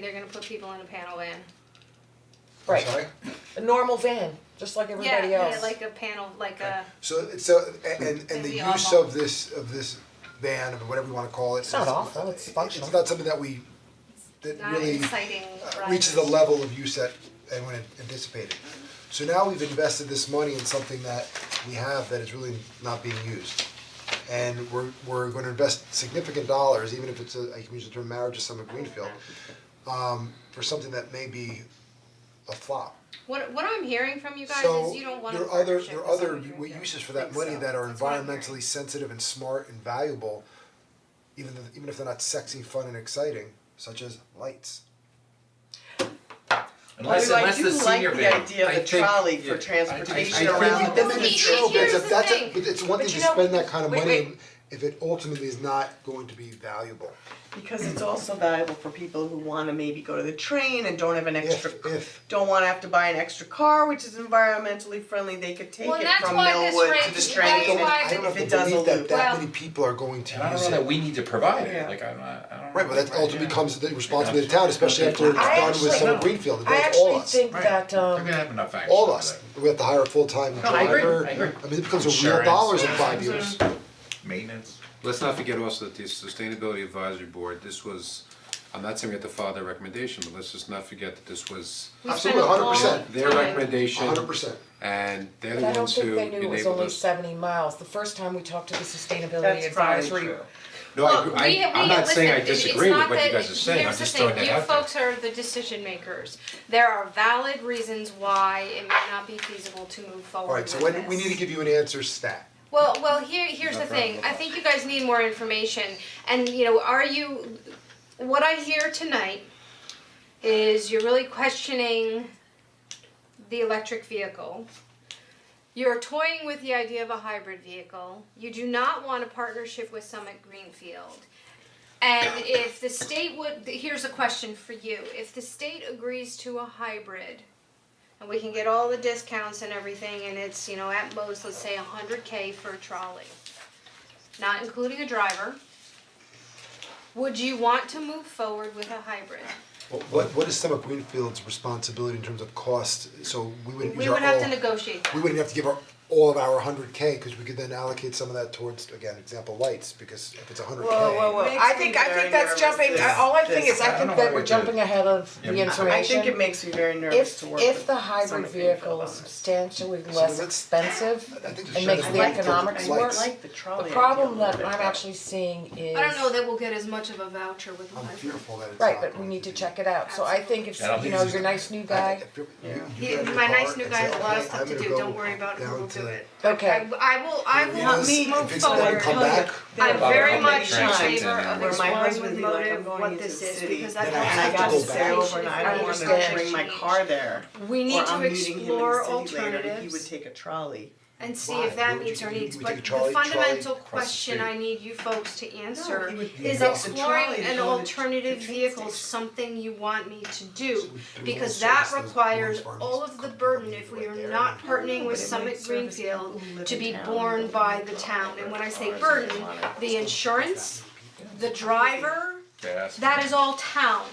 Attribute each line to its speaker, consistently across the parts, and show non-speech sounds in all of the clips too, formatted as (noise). Speaker 1: they're gonna put people in a panel van.
Speaker 2: Right.
Speaker 3: Sorry?
Speaker 2: A normal van, just like everybody
Speaker 1: Yeah,
Speaker 2: else.
Speaker 1: yeah, like a panel, like a,
Speaker 3: So so and and and
Speaker 1: Maybe
Speaker 3: the use
Speaker 1: awful.
Speaker 3: of this of this van or whatever you wanna call it.
Speaker 2: It's not
Speaker 3: is-
Speaker 2: awful, it's functional.
Speaker 3: It's not something that we that
Speaker 1: not
Speaker 3: really
Speaker 1: exciting
Speaker 3: uh, reaches the
Speaker 1: riders.
Speaker 3: level of use that anyone had anticipated. So now we've invested this money in something that we have that is really not being used. And we're we're gonna invest significant dollars, even if it's a, I can use the term marriage to Summit Greenfield, um for something that may be a flop.
Speaker 1: What what I'm hearing from you guys
Speaker 3: So
Speaker 1: is you don't want a
Speaker 3: there are other,
Speaker 1: partnership
Speaker 3: there are
Speaker 1: with
Speaker 3: other
Speaker 1: someone who
Speaker 3: w-
Speaker 1: doesn't
Speaker 3: uses for that
Speaker 1: think
Speaker 3: money
Speaker 1: so.
Speaker 3: that are
Speaker 1: That's what I'm hearing.
Speaker 3: environmentally sensitive and smart and valuable, even though, even if they're not sexy, fun and exciting, such as lights.
Speaker 4: Unless, unless the senior van,
Speaker 5: Although I do like the idea
Speaker 4: I
Speaker 5: of the
Speaker 4: think-
Speaker 5: trolley
Speaker 4: yeah, I
Speaker 5: for
Speaker 4: think-
Speaker 5: transportation
Speaker 4: I think-
Speaker 5: around the
Speaker 1: Well,
Speaker 3: That's
Speaker 1: he-
Speaker 3: a
Speaker 1: he-
Speaker 3: true, but it's a,
Speaker 1: here's the
Speaker 3: that's a,
Speaker 1: thing.
Speaker 3: but it's
Speaker 2: But
Speaker 3: one thing to
Speaker 2: you know-
Speaker 3: spend that kind of
Speaker 2: wait,
Speaker 3: money
Speaker 2: wait.
Speaker 3: if it ultimately is not going to be valuable,
Speaker 5: Because it's also valuable for people who wanna maybe go to the train and don't have an
Speaker 3: if,
Speaker 5: extra,
Speaker 3: if.
Speaker 5: don't wanna have to buy an extra car, which is environmentally friendly, they could take
Speaker 1: Well,
Speaker 5: it
Speaker 1: that's
Speaker 5: from
Speaker 1: why this
Speaker 5: Millwood to
Speaker 1: rate-
Speaker 5: the
Speaker 1: that's
Speaker 5: train.
Speaker 1: why
Speaker 5: and-
Speaker 3: I don't
Speaker 5: if
Speaker 3: have
Speaker 5: it
Speaker 3: to
Speaker 5: does
Speaker 3: believe that
Speaker 5: elude.
Speaker 3: that
Speaker 1: Well-
Speaker 3: many people are going to
Speaker 4: And I don't
Speaker 3: use
Speaker 4: know that
Speaker 3: it.
Speaker 4: we need to provide it,
Speaker 5: Yeah.
Speaker 4: like, I'm not, I don't.
Speaker 3: Right, but that ultimately
Speaker 4: yeah.
Speaker 3: becomes the responsibility of the town, especially after it's
Speaker 2: I
Speaker 3: done with
Speaker 2: actually-
Speaker 3: Summer Greenfield, and
Speaker 2: I
Speaker 3: that's all
Speaker 2: actually
Speaker 3: us.
Speaker 2: think
Speaker 4: Right.
Speaker 2: that
Speaker 4: We're
Speaker 2: um
Speaker 4: gonna have enough action.
Speaker 3: all
Speaker 4: for
Speaker 3: us.
Speaker 4: that.
Speaker 3: We have to hire a full-time
Speaker 4: No, I agree,
Speaker 3: driver.
Speaker 4: I agree.
Speaker 3: I mean, it becomes a real
Speaker 4: Insurance.
Speaker 3: dollars in five years.
Speaker 4: Maintenance.
Speaker 6: Let's not forget also that the Sustainability Advisory Board, this was, I'm not saying we have to follow their recommendation, but let's just not forget that this was
Speaker 1: We spent
Speaker 3: Absolutely,
Speaker 1: a long
Speaker 3: 100%.
Speaker 6: their
Speaker 1: time-
Speaker 6: recommendation.
Speaker 3: hundred percent.
Speaker 6: And they're
Speaker 2: but
Speaker 6: the
Speaker 2: I don't
Speaker 6: ones
Speaker 2: think
Speaker 6: who
Speaker 2: they knew it was
Speaker 6: enabled
Speaker 2: only
Speaker 6: us.
Speaker 2: seventy miles, the first time we talked to the sustainability
Speaker 5: That's probably
Speaker 2: advisory.
Speaker 5: true.
Speaker 6: No, I,
Speaker 1: Look,
Speaker 6: agree-
Speaker 1: we-
Speaker 6: I, I'm
Speaker 1: we-
Speaker 6: not saying I
Speaker 1: listen, it- it's
Speaker 6: disagree with
Speaker 1: not
Speaker 6: what you
Speaker 1: that-
Speaker 6: guys are saying, I'm
Speaker 1: here's the
Speaker 6: just throwing
Speaker 1: thing,
Speaker 6: that out there.
Speaker 1: You folks are the decision makers. There are valid reasons why it may not be feasible to move forward
Speaker 3: Alright, so
Speaker 1: with
Speaker 3: when, we
Speaker 1: this.
Speaker 3: need to give you an answer stat.
Speaker 1: Well, well, here, here's
Speaker 4: No
Speaker 1: the thing,
Speaker 4: problem.
Speaker 1: I think you guys need more information, and you know, are you, what I hear tonight is you're really questioning the electric vehicle. You're toying with the idea of a hybrid vehicle, you do not want a partnership with Summit Greenfield. And if the state would, here's a question for you, if the state agrees to a hybrid, and we can get all the discounts and everything, and it's, you know, at most, let's say a hundred K for a trolley. Not including a driver. Would you want to move forward with a hybrid?
Speaker 3: What, what- what is Summit Greenfield's responsibility in terms of cost, so we wouldn't use
Speaker 1: We
Speaker 3: our
Speaker 1: would have to
Speaker 3: all-
Speaker 1: negotiate that.
Speaker 3: We wouldn't have to give our, all of our hundred K, cause we could then allocate some of that towards, again, example, lights, because if it's hundred K.
Speaker 2: Whoa, whoa, whoa,
Speaker 5: Makes
Speaker 2: I think,
Speaker 5: me
Speaker 2: I
Speaker 5: very
Speaker 2: think that's
Speaker 5: nervous,
Speaker 2: jumping,
Speaker 5: this-
Speaker 2: I- all I think
Speaker 5: this-
Speaker 2: is, I
Speaker 4: I don't know
Speaker 2: think
Speaker 4: why
Speaker 2: that
Speaker 4: we
Speaker 2: we're
Speaker 4: did.
Speaker 2: jumping ahead of the
Speaker 4: Yeah, I- I
Speaker 2: information.
Speaker 5: I think it makes me very nervous
Speaker 2: If
Speaker 5: to work
Speaker 2: if
Speaker 5: with
Speaker 2: the hybrid
Speaker 5: Summit
Speaker 2: vehicle
Speaker 5: Greenfield on
Speaker 2: is
Speaker 5: this.
Speaker 2: substantially
Speaker 3: that's-
Speaker 2: less
Speaker 5: (laughs)
Speaker 2: expensive,
Speaker 3: I think the
Speaker 2: it makes
Speaker 3: shadow
Speaker 2: the
Speaker 3: bank
Speaker 2: economics
Speaker 3: towards
Speaker 5: I
Speaker 2: work.
Speaker 3: lights.
Speaker 5: like the trolley
Speaker 2: The
Speaker 5: idea a
Speaker 2: problem
Speaker 5: little
Speaker 2: that
Speaker 5: bit
Speaker 2: I'm
Speaker 5: better.
Speaker 2: actually seeing is.
Speaker 1: I don't know that we'll get as much of a voucher with a
Speaker 3: I'm
Speaker 1: hybrid.
Speaker 3: fearful that it's
Speaker 2: Right,
Speaker 3: not
Speaker 2: but we
Speaker 3: going
Speaker 2: need to
Speaker 3: be.
Speaker 2: check it out, so I think if,
Speaker 4: I don't
Speaker 2: you
Speaker 4: think
Speaker 2: know,
Speaker 4: this is-
Speaker 2: your nice new
Speaker 3: I-
Speaker 2: guy,
Speaker 3: if you- you-
Speaker 5: Yeah.
Speaker 3: you
Speaker 1: He-
Speaker 3: drive your
Speaker 1: my nice
Speaker 3: car
Speaker 1: new
Speaker 3: and
Speaker 1: guy
Speaker 3: say,
Speaker 1: has a lot of
Speaker 3: "Okay,
Speaker 1: stuff
Speaker 3: I'm
Speaker 1: to
Speaker 3: gonna
Speaker 1: do,
Speaker 3: go
Speaker 1: don't worry about it,
Speaker 3: down
Speaker 1: we'll do
Speaker 3: to
Speaker 1: it.
Speaker 2: okay,
Speaker 1: I, I will, I will
Speaker 3: Yes,
Speaker 1: move
Speaker 3: if it's not
Speaker 1: forward.
Speaker 3: come back.
Speaker 1: I'm very
Speaker 4: Bobby,
Speaker 1: much in
Speaker 4: Bobby,
Speaker 1: favor of
Speaker 4: Bobby, Bobby,
Speaker 1: exploring with
Speaker 5: Bobby, Bobby,
Speaker 1: motive
Speaker 5: Bobby,
Speaker 1: what
Speaker 5: Bobby,
Speaker 1: this is,
Speaker 5: Bobby,
Speaker 1: because
Speaker 3: Bobby,
Speaker 1: that
Speaker 3: Bobby,
Speaker 5: And I
Speaker 1: helps
Speaker 5: got to
Speaker 3: Go
Speaker 1: with
Speaker 5: stay
Speaker 3: back.
Speaker 5: overnight, I don't wanna
Speaker 2: Understand.
Speaker 5: bring my car there.
Speaker 1: We need
Speaker 5: Or I'm
Speaker 1: to
Speaker 5: meeting him in
Speaker 1: explore
Speaker 5: the city later, and he
Speaker 1: alternatives.
Speaker 5: would take a trolley.
Speaker 1: and see
Speaker 3: Why?
Speaker 1: if that
Speaker 3: Would you-
Speaker 1: meets our
Speaker 3: you-
Speaker 1: needs,
Speaker 3: would
Speaker 1: but
Speaker 3: you
Speaker 1: the
Speaker 3: trolley-
Speaker 1: fundamental
Speaker 3: trolley
Speaker 6: across the
Speaker 1: question
Speaker 6: street?
Speaker 1: I need you folks to answer
Speaker 5: he would
Speaker 1: is
Speaker 3: walk the
Speaker 5: trolley
Speaker 1: exploring
Speaker 5: to
Speaker 1: an
Speaker 5: go to the
Speaker 1: alternative
Speaker 5: train
Speaker 1: vehicle
Speaker 5: station.
Speaker 1: something you want me to
Speaker 3: So
Speaker 1: do?
Speaker 3: we do
Speaker 1: Because
Speaker 3: all
Speaker 1: that
Speaker 3: service those
Speaker 1: requires
Speaker 3: farms
Speaker 1: all of the
Speaker 3: company
Speaker 1: burden
Speaker 3: right
Speaker 1: if we are
Speaker 3: there.
Speaker 1: not partnering
Speaker 5: But
Speaker 1: with
Speaker 5: it might
Speaker 1: Summit
Speaker 5: service
Speaker 1: Greenfield
Speaker 5: people who live
Speaker 1: to
Speaker 5: in
Speaker 1: be
Speaker 5: town
Speaker 1: borne
Speaker 5: and
Speaker 1: by
Speaker 5: don't
Speaker 1: the
Speaker 5: want
Speaker 1: town,
Speaker 5: their
Speaker 1: and when I say
Speaker 5: cars
Speaker 1: burden,
Speaker 5: and want it.
Speaker 1: the insurance, the driver,
Speaker 4: Yes.
Speaker 1: that is all town.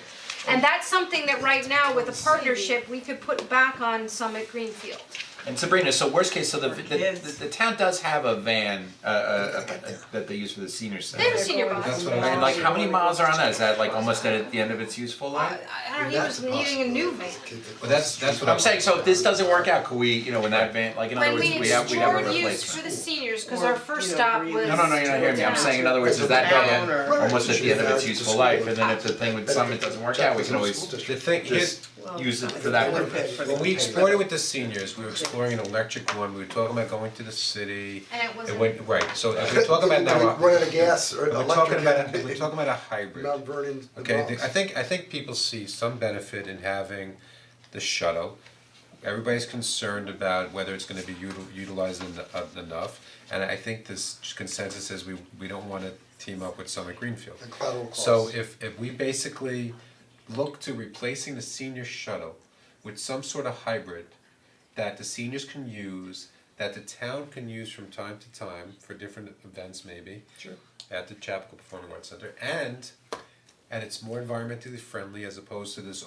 Speaker 1: And that's something that right now with a partnership, we could put back on Summit Greenfield.
Speaker 4: And Sabrina, so worst case, so the, the,
Speaker 5: kids.
Speaker 4: the, the town does have a van, uh, uh, uh, that they use for the senior
Speaker 1: They have a
Speaker 4: center.
Speaker 1: senior bus.
Speaker 3: That's what I was
Speaker 4: And like, how many miles are on that? Is that like
Speaker 3: Well,
Speaker 4: almost at the end of its useful life?
Speaker 1: I don't know, he was needing a new van.
Speaker 6: But that's, that's what
Speaker 4: I'm saying, so if this doesn't work out, could we, you know, when that van, like, in other
Speaker 1: When
Speaker 4: words,
Speaker 1: we
Speaker 4: we have, we have a
Speaker 1: explored
Speaker 4: replacement.
Speaker 1: use for the seniors, cause
Speaker 5: Or,
Speaker 1: our
Speaker 5: you
Speaker 1: first
Speaker 5: know,
Speaker 1: stop
Speaker 5: breathe.
Speaker 1: was.
Speaker 4: No, no, no, you're not hearing me, I'm saying in other words, is that
Speaker 5: Town
Speaker 4: van
Speaker 5: or-
Speaker 4: almost at the end of its useful life, and then if the thing with Summit doesn't work out, we can always
Speaker 3: School
Speaker 6: The thing is,
Speaker 4: just use it for that purpose.
Speaker 6: when we explored it with the seniors, we were exploring an electric one, we were talking about going to the city.
Speaker 1: And it wasn't-
Speaker 6: went, right, so if
Speaker 3: (laughs)
Speaker 6: we're talking about now.
Speaker 3: Like, Run out of gas or
Speaker 6: We're
Speaker 3: electric.
Speaker 6: talking about,
Speaker 3: and-
Speaker 6: a- we're talking about a hybrid.
Speaker 3: Mount Vernon, the
Speaker 6: Okay,
Speaker 3: Bronx.
Speaker 6: the- I think, I think people see some benefit in having the shuttle. Everybody's concerned about whether it's gonna be util- utilized en- uh, enough, and I think this consensus is we, we don't wanna team up with Summit Greenfield.
Speaker 3: The collateral
Speaker 6: So
Speaker 3: costs.
Speaker 6: if, if we basically look to replacing the senior shuttle with some sort of hybrid that the seniors can use, that the town can use from time to time for different events maybe. Sure. At the Chapel Performing Arts Center, and and it's more environmentally friendly as opposed to this